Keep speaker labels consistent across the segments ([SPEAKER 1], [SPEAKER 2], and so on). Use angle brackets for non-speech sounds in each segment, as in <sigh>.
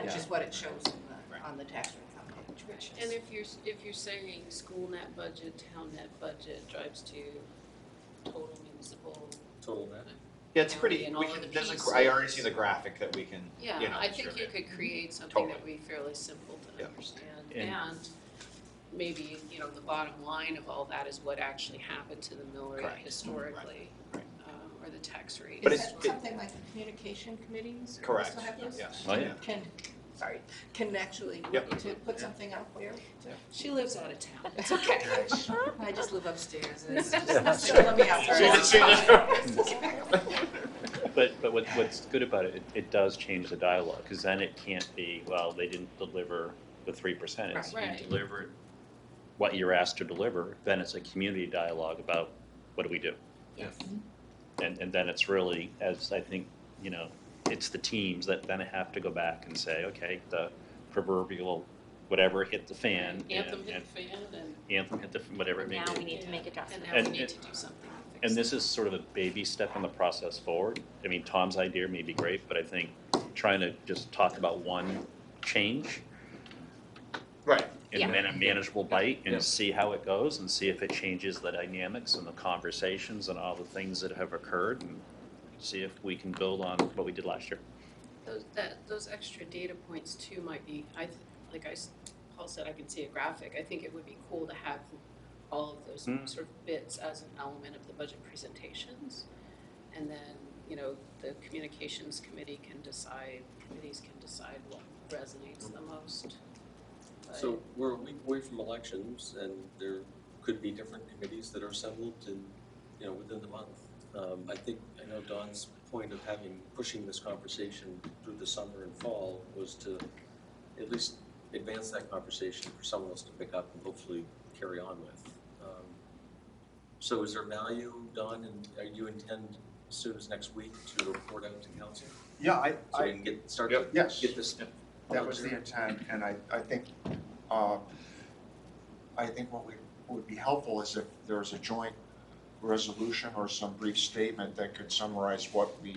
[SPEAKER 1] which
[SPEAKER 2] Yeah.
[SPEAKER 1] is Uh, what it shows on the,
[SPEAKER 3] Right.
[SPEAKER 1] on the tax income page, which
[SPEAKER 4] And
[SPEAKER 1] is,
[SPEAKER 4] if you're, s- if you're saying school net budget, town net budget drives to total municipal,
[SPEAKER 2] total net.
[SPEAKER 3] Yeah, it's pretty,
[SPEAKER 4] And
[SPEAKER 3] we
[SPEAKER 4] all of
[SPEAKER 3] can,
[SPEAKER 4] the
[SPEAKER 3] there's a,
[SPEAKER 4] pieces.
[SPEAKER 3] gr- I already see the graphic that we can, you know,
[SPEAKER 4] yeah, I think you
[SPEAKER 3] distribute.
[SPEAKER 4] could create something that would
[SPEAKER 3] Totally.
[SPEAKER 4] be fairly simple to
[SPEAKER 3] Yeah.
[SPEAKER 4] understand.
[SPEAKER 2] And-
[SPEAKER 4] And maybe, you know, the bottom line of all that is what actually happened to the mill rate
[SPEAKER 3] Correct.
[SPEAKER 4] historically,
[SPEAKER 3] Right.
[SPEAKER 4] uh, or the tax rate.
[SPEAKER 3] But
[SPEAKER 1] is
[SPEAKER 3] it's-
[SPEAKER 1] that
[SPEAKER 3] it-
[SPEAKER 1] something like the communication committees or
[SPEAKER 3] Correct.
[SPEAKER 1] also have those?
[SPEAKER 3] Yes.
[SPEAKER 2] Oh, yeah.
[SPEAKER 1] Can, sorry, can actually,
[SPEAKER 3] Yep.
[SPEAKER 1] to put something out there?
[SPEAKER 4] She lives out of town,
[SPEAKER 1] It's <laughs> okay. I just live upstairs and it's <laughs> just,
[SPEAKER 2] Yeah.
[SPEAKER 1] let me out for a
[SPEAKER 3] She- <laughs>
[SPEAKER 5] But, but what, what's good about it, it, it does change the dialogue, because then it can't be, well, they didn't deliver the three percent. It's
[SPEAKER 4] Right. Right.
[SPEAKER 5] you delivered what you're asked to deliver, then it's a community dialogue about what do we do?
[SPEAKER 2] Yes.
[SPEAKER 5] And, and then it's really, as I think, you know, it's the teams that then have to go back and say, okay, the proverbial whatever hit the fan. and-
[SPEAKER 4] Anthem hit the fan and,
[SPEAKER 5] and Anthem hit the, whatever it may
[SPEAKER 6] Now
[SPEAKER 5] be.
[SPEAKER 6] we need to make
[SPEAKER 4] and
[SPEAKER 6] adjustments.
[SPEAKER 4] now
[SPEAKER 5] And-
[SPEAKER 4] we need
[SPEAKER 5] and-
[SPEAKER 4] to do something to fix
[SPEAKER 5] And
[SPEAKER 4] it.
[SPEAKER 5] this is sort of a baby step in the process forward. I mean, Tom's idea may be great, but I think trying to just talk about one change
[SPEAKER 3] Right,
[SPEAKER 5] and then a manageable bite
[SPEAKER 2] Yeah.
[SPEAKER 5] and see how it goes and see if it changes the dynamics and the conversations and all the things that have occurred and see if we can build on what we did last year.
[SPEAKER 4] Those, that, those extra data points too might be, I, th- like I, s- Paul said, I can see a graphic, I think it would be cool to have all of those
[SPEAKER 5] Mm.
[SPEAKER 4] sort of bits as an element of the budget presentations. And then, you know, the communications committee can decide, committees can decide what resonates the most. But-
[SPEAKER 2] So we're a week away from elections and there could be different committees that are assembled in, you know, within the month. Um, I think, I know Don's point of having, pushing this conversation through the summer and fall was to at least advance that conversation for someone else to pick up and hopefully carry on with. Um, So is there value, Don, and are you intend as soon as next week to report out to council?
[SPEAKER 7] Yeah, I,
[SPEAKER 2] So we
[SPEAKER 7] I,
[SPEAKER 2] can get, start to
[SPEAKER 3] Yep.
[SPEAKER 7] Yes.
[SPEAKER 2] get this.
[SPEAKER 7] that was the intent, and I, I think, uh, I think what we, what would be helpful is if there's a joint resolution or some brief statement that could summarize what we,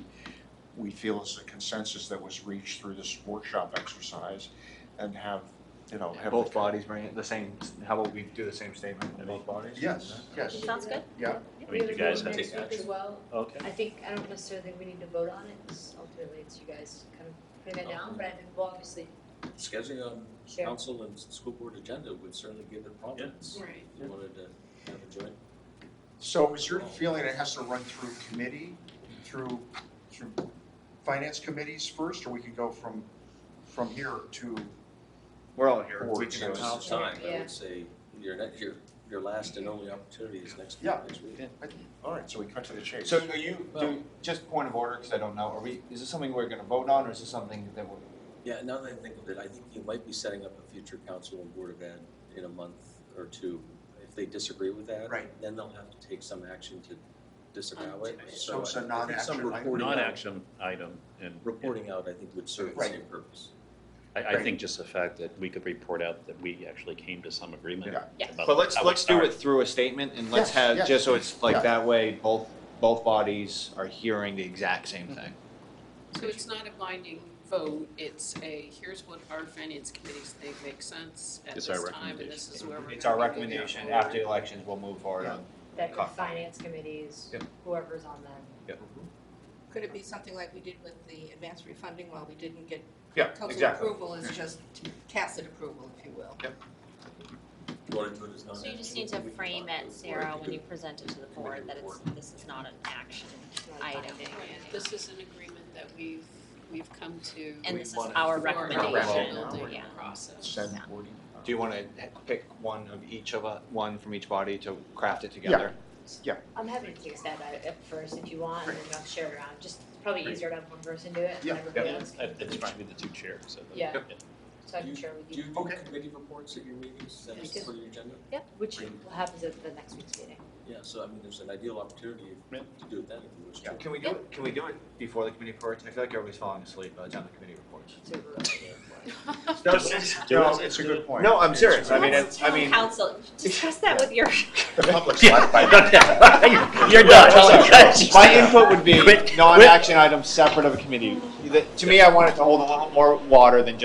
[SPEAKER 7] we feel is the consensus that was reached through this workshop exercise, and have, you know, have.
[SPEAKER 3] both
[SPEAKER 7] the-
[SPEAKER 3] bodies bring it, the same, how about we do the same statement in both bodies?
[SPEAKER 7] Yes, yes,
[SPEAKER 6] Sounds good?
[SPEAKER 7] yeah,
[SPEAKER 5] I mean, you guys have,
[SPEAKER 2] Take action.
[SPEAKER 8] as well.
[SPEAKER 5] okay.
[SPEAKER 8] I think, I don't necessarily think we need to vote on it, 'cause ultimately it's you guys kind of putting that down, but I think we'll obviously
[SPEAKER 2] Scheduling on
[SPEAKER 8] share.
[SPEAKER 2] council and s- school board agenda would certainly give it prominence.
[SPEAKER 4] Right.
[SPEAKER 2] If you wanted to have a joint,
[SPEAKER 7] so is your feeling it has to run through committee, through, through finance committees first, or we could go from, from here to?
[SPEAKER 3] We're all here.
[SPEAKER 7] Or
[SPEAKER 3] We can
[SPEAKER 7] just-
[SPEAKER 2] Now's
[SPEAKER 3] have-
[SPEAKER 2] the time, I
[SPEAKER 8] Yeah.
[SPEAKER 2] would say, your, ne- your, your last and only opportunity is next week,
[SPEAKER 7] Yeah.
[SPEAKER 2] next week.
[SPEAKER 7] All right, so we cut to the chase.
[SPEAKER 3] So are you, do, just point of order, because I don't know, are we, is this something we're gonna vote on, or is this something that we're?
[SPEAKER 2] Yeah, now that I think of it, I think you might be setting up a future council and board of ed in a month or two. If they disagree with that,
[SPEAKER 7] Right.
[SPEAKER 2] then they'll have to take some action to disavow it.
[SPEAKER 4] Undo it.
[SPEAKER 7] So it's a
[SPEAKER 2] I think
[SPEAKER 7] non-action
[SPEAKER 2] Some
[SPEAKER 7] item.
[SPEAKER 2] reporting out,
[SPEAKER 5] Non-action item and.
[SPEAKER 2] reporting out, I think would serve the
[SPEAKER 7] Right.
[SPEAKER 2] same purpose.
[SPEAKER 5] I, I think just the fact that we could report out that we actually came to some agreement.
[SPEAKER 7] Yeah.
[SPEAKER 6] Yes.
[SPEAKER 5] about
[SPEAKER 3] But let's,
[SPEAKER 5] how
[SPEAKER 3] let's do
[SPEAKER 5] started.
[SPEAKER 3] it through a statement, and let's
[SPEAKER 7] Yes,
[SPEAKER 3] have,
[SPEAKER 7] yes.
[SPEAKER 3] just so it's
[SPEAKER 7] Yeah.
[SPEAKER 3] like, that way, both, both bodies are hearing the exact same thing.
[SPEAKER 4] So it's not a binding vote, it's a, here's what our finance committees think makes sense at this
[SPEAKER 5] It's our
[SPEAKER 4] time, and this
[SPEAKER 5] recommendation.
[SPEAKER 4] is where we're.
[SPEAKER 3] It's our
[SPEAKER 4] gonna be moving
[SPEAKER 3] recommendation,
[SPEAKER 4] forward.
[SPEAKER 3] after the elections, we'll move forward on.
[SPEAKER 8] that the
[SPEAKER 3] Coffee.
[SPEAKER 8] finance committees,
[SPEAKER 3] Yep.
[SPEAKER 8] whoever's on them.
[SPEAKER 1] <laughs> could it be something like we did with the advanced refunding while we didn't get
[SPEAKER 3] Yeah,
[SPEAKER 1] council approval, is just tacit approval, if you will.
[SPEAKER 2] Do you want to do it as
[SPEAKER 6] So
[SPEAKER 2] non-action?
[SPEAKER 6] you just need to
[SPEAKER 2] We can
[SPEAKER 6] frame
[SPEAKER 2] talk
[SPEAKER 6] it,
[SPEAKER 2] to the board.
[SPEAKER 6] Sarah, when you present it to the board, that it's, this is not an action
[SPEAKER 8] It's not
[SPEAKER 6] item.
[SPEAKER 8] binding.
[SPEAKER 4] Right, This is an agreement that we've, we've come to.
[SPEAKER 6] And
[SPEAKER 2] We
[SPEAKER 6] this is
[SPEAKER 2] wanna-
[SPEAKER 6] our
[SPEAKER 4] for our
[SPEAKER 6] recommendation,
[SPEAKER 4] building
[SPEAKER 6] yeah.
[SPEAKER 4] Process.
[SPEAKER 7] Send
[SPEAKER 6] Yeah.
[SPEAKER 7] wording.
[SPEAKER 3] Do you wanna pick one of each of, us- one from each body to craft it together?
[SPEAKER 8] I'm happy to take a stab at it at first if you want, and then I'll share it around, just it's probably easier to have one person do it, and
[SPEAKER 7] Yeah,
[SPEAKER 8] everybody
[SPEAKER 3] yeah.
[SPEAKER 8] else
[SPEAKER 5] I- I
[SPEAKER 8] can,
[SPEAKER 5] think it should be the two chairs. so that-
[SPEAKER 8] Yeah. so I can share with
[SPEAKER 2] Do you
[SPEAKER 8] you.
[SPEAKER 2] do
[SPEAKER 7] Okay.
[SPEAKER 2] committee reports at your meetings,
[SPEAKER 8] I
[SPEAKER 2] is
[SPEAKER 8] do.
[SPEAKER 2] that for your agenda?
[SPEAKER 8] Yeah, which happens at the next week's meeting.
[SPEAKER 2] Yeah, so I mean, there's an ideal opportunity
[SPEAKER 5] Yeah.
[SPEAKER 2] to do it then if you wish to.
[SPEAKER 3] Can we do it, can we do it before the committee reports? I feel like everybody's falling asleep by the time the committee reports.
[SPEAKER 8] So we're over there.
[SPEAKER 7] No, it's a good point.
[SPEAKER 3] No, I'm serious, I mean, it's-
[SPEAKER 6] Let's
[SPEAKER 3] I
[SPEAKER 6] tell
[SPEAKER 3] mean.
[SPEAKER 6] council,
[SPEAKER 3] <laughs>
[SPEAKER 6] discuss that with your,
[SPEAKER 7] The public's
[SPEAKER 5] Yeah,
[SPEAKER 7] not
[SPEAKER 5] <laughs>
[SPEAKER 7] by
[SPEAKER 5] okay. You're done.
[SPEAKER 3] My input would be
[SPEAKER 5] Quit.
[SPEAKER 3] non-action items separate of a committee. The- To me, I want it to hold a little more water than just